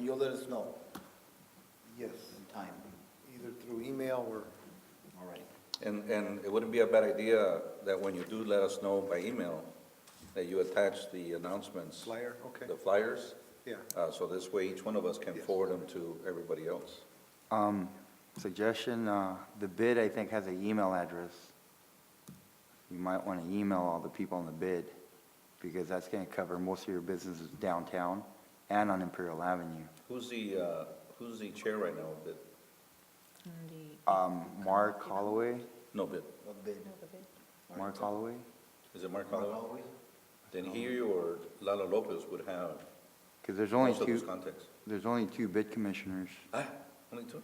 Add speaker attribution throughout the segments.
Speaker 1: you'll let us know
Speaker 2: Yes,
Speaker 1: in time,
Speaker 2: either through email or,
Speaker 1: all right?
Speaker 3: And, and it wouldn't be a bad idea that when you do let us know by email, that you attach the announcements.
Speaker 2: Flyer, okay.
Speaker 3: The flyers,
Speaker 2: yeah.
Speaker 3: uh, so this way each one of us can
Speaker 2: Yes.
Speaker 3: forward them to everybody else.
Speaker 4: Um, suggestion, uh, the bid, I think, has an email address. You might want to email all the people on the bid, because that's going to cover most of your businesses downtown and on Imperial Avenue.
Speaker 3: Who's the, uh, who's the chair right now of bid?
Speaker 4: Um, Mark Holloway,
Speaker 3: No bid.
Speaker 1: What bid?
Speaker 4: Mark Holloway?
Speaker 3: Is it Mark
Speaker 1: Mark
Speaker 3: Holloway?
Speaker 1: Holloway?
Speaker 3: Then he or Lalo Lopez would have
Speaker 4: Because there's only
Speaker 3: most of those
Speaker 4: two,
Speaker 3: contacts.
Speaker 4: there's only two bid commissioners.
Speaker 3: Ah, only two?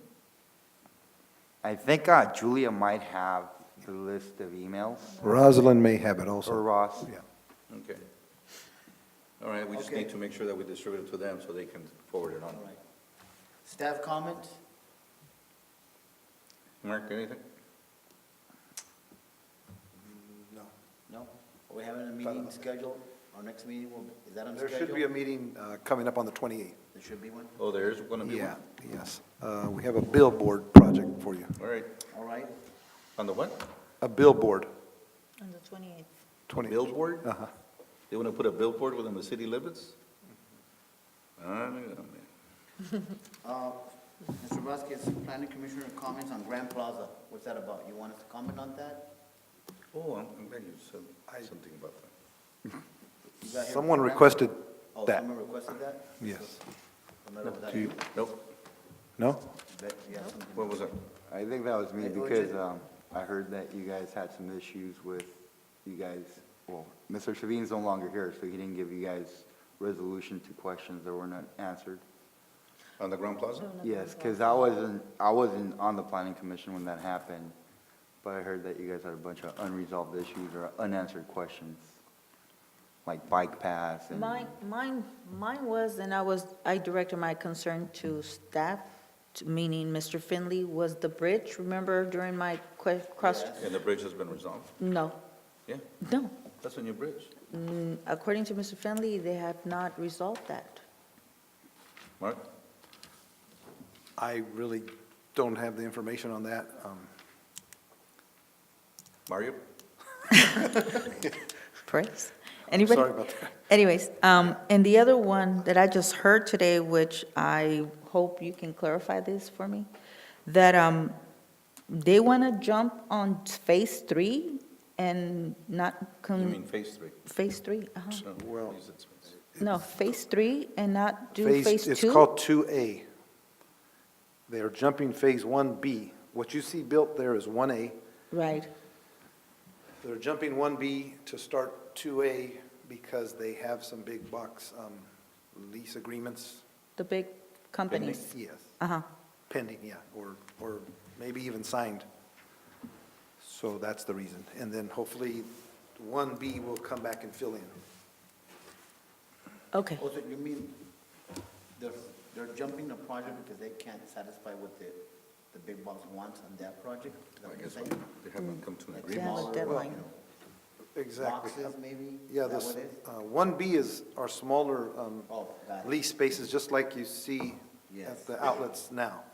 Speaker 4: I think, uh, Julia might have the list of emails,
Speaker 2: Rosalind may have it also.
Speaker 4: or Ross.
Speaker 2: Yeah.
Speaker 3: Okay. All right, we just
Speaker 1: Okay.
Speaker 3: need to make sure that we distribute it to them so they can forward it on.
Speaker 1: All right. Staff comment?
Speaker 3: Mark, anything?
Speaker 2: No.
Speaker 1: No? Are we having a meeting scheduled? Our next meeting will, is that on
Speaker 2: There
Speaker 1: schedule?
Speaker 2: should be a meeting uh, coming up on the 28th.
Speaker 1: There should be one?
Speaker 3: Oh, there is gonna be one?
Speaker 2: Yeah, yes. Uh, We have a billboard project for you.
Speaker 3: All right,
Speaker 1: All right,
Speaker 3: on the what?
Speaker 2: A billboard,
Speaker 5: On the twenty-eighth.
Speaker 2: 20.
Speaker 3: Billboard?
Speaker 2: Uh-huh.
Speaker 3: They wanna put a billboard within the city limits? Ah, I don't know, man.
Speaker 1: uh, Mr. Vasquez, planning commissioner comments on Grand Plaza. What's that about? You want us to comment on that?
Speaker 3: Oh, I'm I'm glad you said something about that.
Speaker 1: You got here
Speaker 2: Someone
Speaker 1: Grand-
Speaker 2: requested
Speaker 1: Oh,
Speaker 2: that.
Speaker 1: someone requested that?
Speaker 2: Yes.
Speaker 1: No matter what that
Speaker 2: Do you-
Speaker 1: is.
Speaker 3: Nope,
Speaker 2: No?
Speaker 1: Bet you have something.
Speaker 3: what was that?
Speaker 4: I think that was me
Speaker 1: Hey, Ochi.
Speaker 4: because um, I heard that you guys had some issues with you guys, well, Mr. Shavin's no longer here, so he didn't give you guys resolution to questions that were not answered.
Speaker 3: On the Grand Plaza?
Speaker 4: Yes, because I wasn't, I wasn't on the planning commission when that happened, but I heard that you guys had a bunch of unresolved issues or unanswered questions, like bike paths and.
Speaker 5: Mine, mine, mine was, and I was, I directed my concern to staff, to- meaning Mr. Finley, was the bridge, remember during my que- cross?
Speaker 3: And the bridge has been resolved?
Speaker 5: No,
Speaker 3: Yeah,
Speaker 5: no.
Speaker 3: that's a new bridge.
Speaker 5: Mm, According to Mr. Finley, they have not resolved that.
Speaker 3: Mark?
Speaker 2: I really don't have the information on that. Um,
Speaker 3: Mario?
Speaker 5: Praise. Anybody?
Speaker 2: Sorry about that.
Speaker 5: Anyways, um, and the other one that I just heard today, which I hope you can clarify this for me, that, um, they want to jump on phase three and not
Speaker 3: You
Speaker 5: con,
Speaker 3: mean phase three?
Speaker 5: phase three, uh-huh.
Speaker 3: No,
Speaker 2: Well-
Speaker 3: please, it's phase-
Speaker 5: No, phase three and not do
Speaker 2: Phase-
Speaker 5: phase two?
Speaker 2: It's called 2A. They are jumping Phase 1B. What you see built there is 1A.
Speaker 5: Right,
Speaker 2: They're jumping 1B to start 2A because they have some big box um, lease agreements.
Speaker 5: the big companies,
Speaker 2: Yes,
Speaker 5: uh-huh.
Speaker 2: pending, yeah, or, or maybe even signed. So that's the reason. And then hopefully 1B will come back and fill in.
Speaker 5: Okay,
Speaker 1: Also, Oh, you mean, they're, they're jumping the project because they can't satisfy what the, the big boss wants on that project? Is that
Speaker 3: I
Speaker 1: what you're
Speaker 3: guess
Speaker 1: saying?
Speaker 3: They haven't come to an
Speaker 1: Like
Speaker 5: They have
Speaker 3: agreement.
Speaker 5: a
Speaker 1: smaller,
Speaker 5: deadline.
Speaker 1: you know,
Speaker 2: Exactly.
Speaker 1: Boxes, maybe?
Speaker 2: Yeah,
Speaker 1: Is that
Speaker 2: this,
Speaker 1: what it is?
Speaker 2: uh, 1B is our smaller um,
Speaker 1: Oh, got it.
Speaker 2: lease spaces, just like you see
Speaker 1: Yes.
Speaker 2: at the outlets now.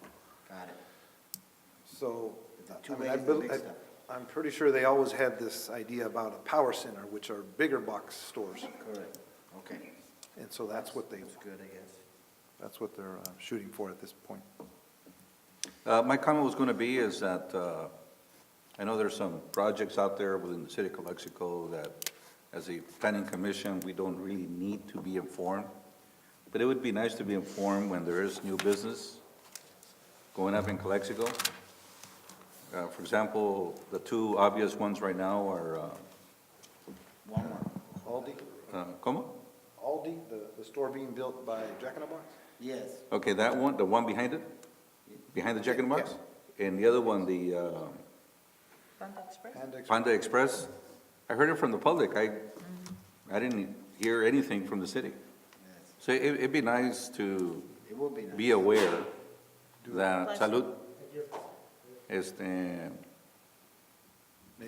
Speaker 1: Got it.
Speaker 2: So,
Speaker 1: The
Speaker 2: I
Speaker 1: two
Speaker 2: mean, I,
Speaker 1: ways is the
Speaker 2: bel-
Speaker 1: big
Speaker 2: I-
Speaker 1: stuff.
Speaker 2: I'm pretty sure they always had this idea about a power center, which are bigger box stores.
Speaker 1: Correct. Okay.
Speaker 2: And so that's what they,
Speaker 1: That's good, I guess.
Speaker 2: that's what they're uh, shooting for at this point.
Speaker 3: Uh, my comment was gonna be is that, uh, I know there's some projects out there within the city of Calexico that, as a planning commission, we don't really need to be informed. But it would be nice to be informed when there is new business going up in Calexico. Uh, for example, the two obvious ones right now are, uh,
Speaker 1: Walmart.
Speaker 2: Aldi,
Speaker 3: uh, Como?
Speaker 2: Aldi, the, the store being built by Jack in the Box?
Speaker 1: Yes.
Speaker 3: Okay, that one, the one behind it, behind the Jack in the Box? And the other one, the, uh,
Speaker 2: And ex-
Speaker 3: Panda Express, I heard it from the public, I, I didn't hear anything from the city.
Speaker 1: Yes.
Speaker 3: So it, it'd be nice to
Speaker 1: It will be nice.
Speaker 3: be aware that Salud, este,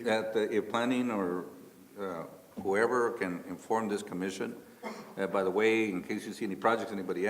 Speaker 3: that if planning or uh, whoever can inform this commission, uh, by the way, in case you see any projects anybody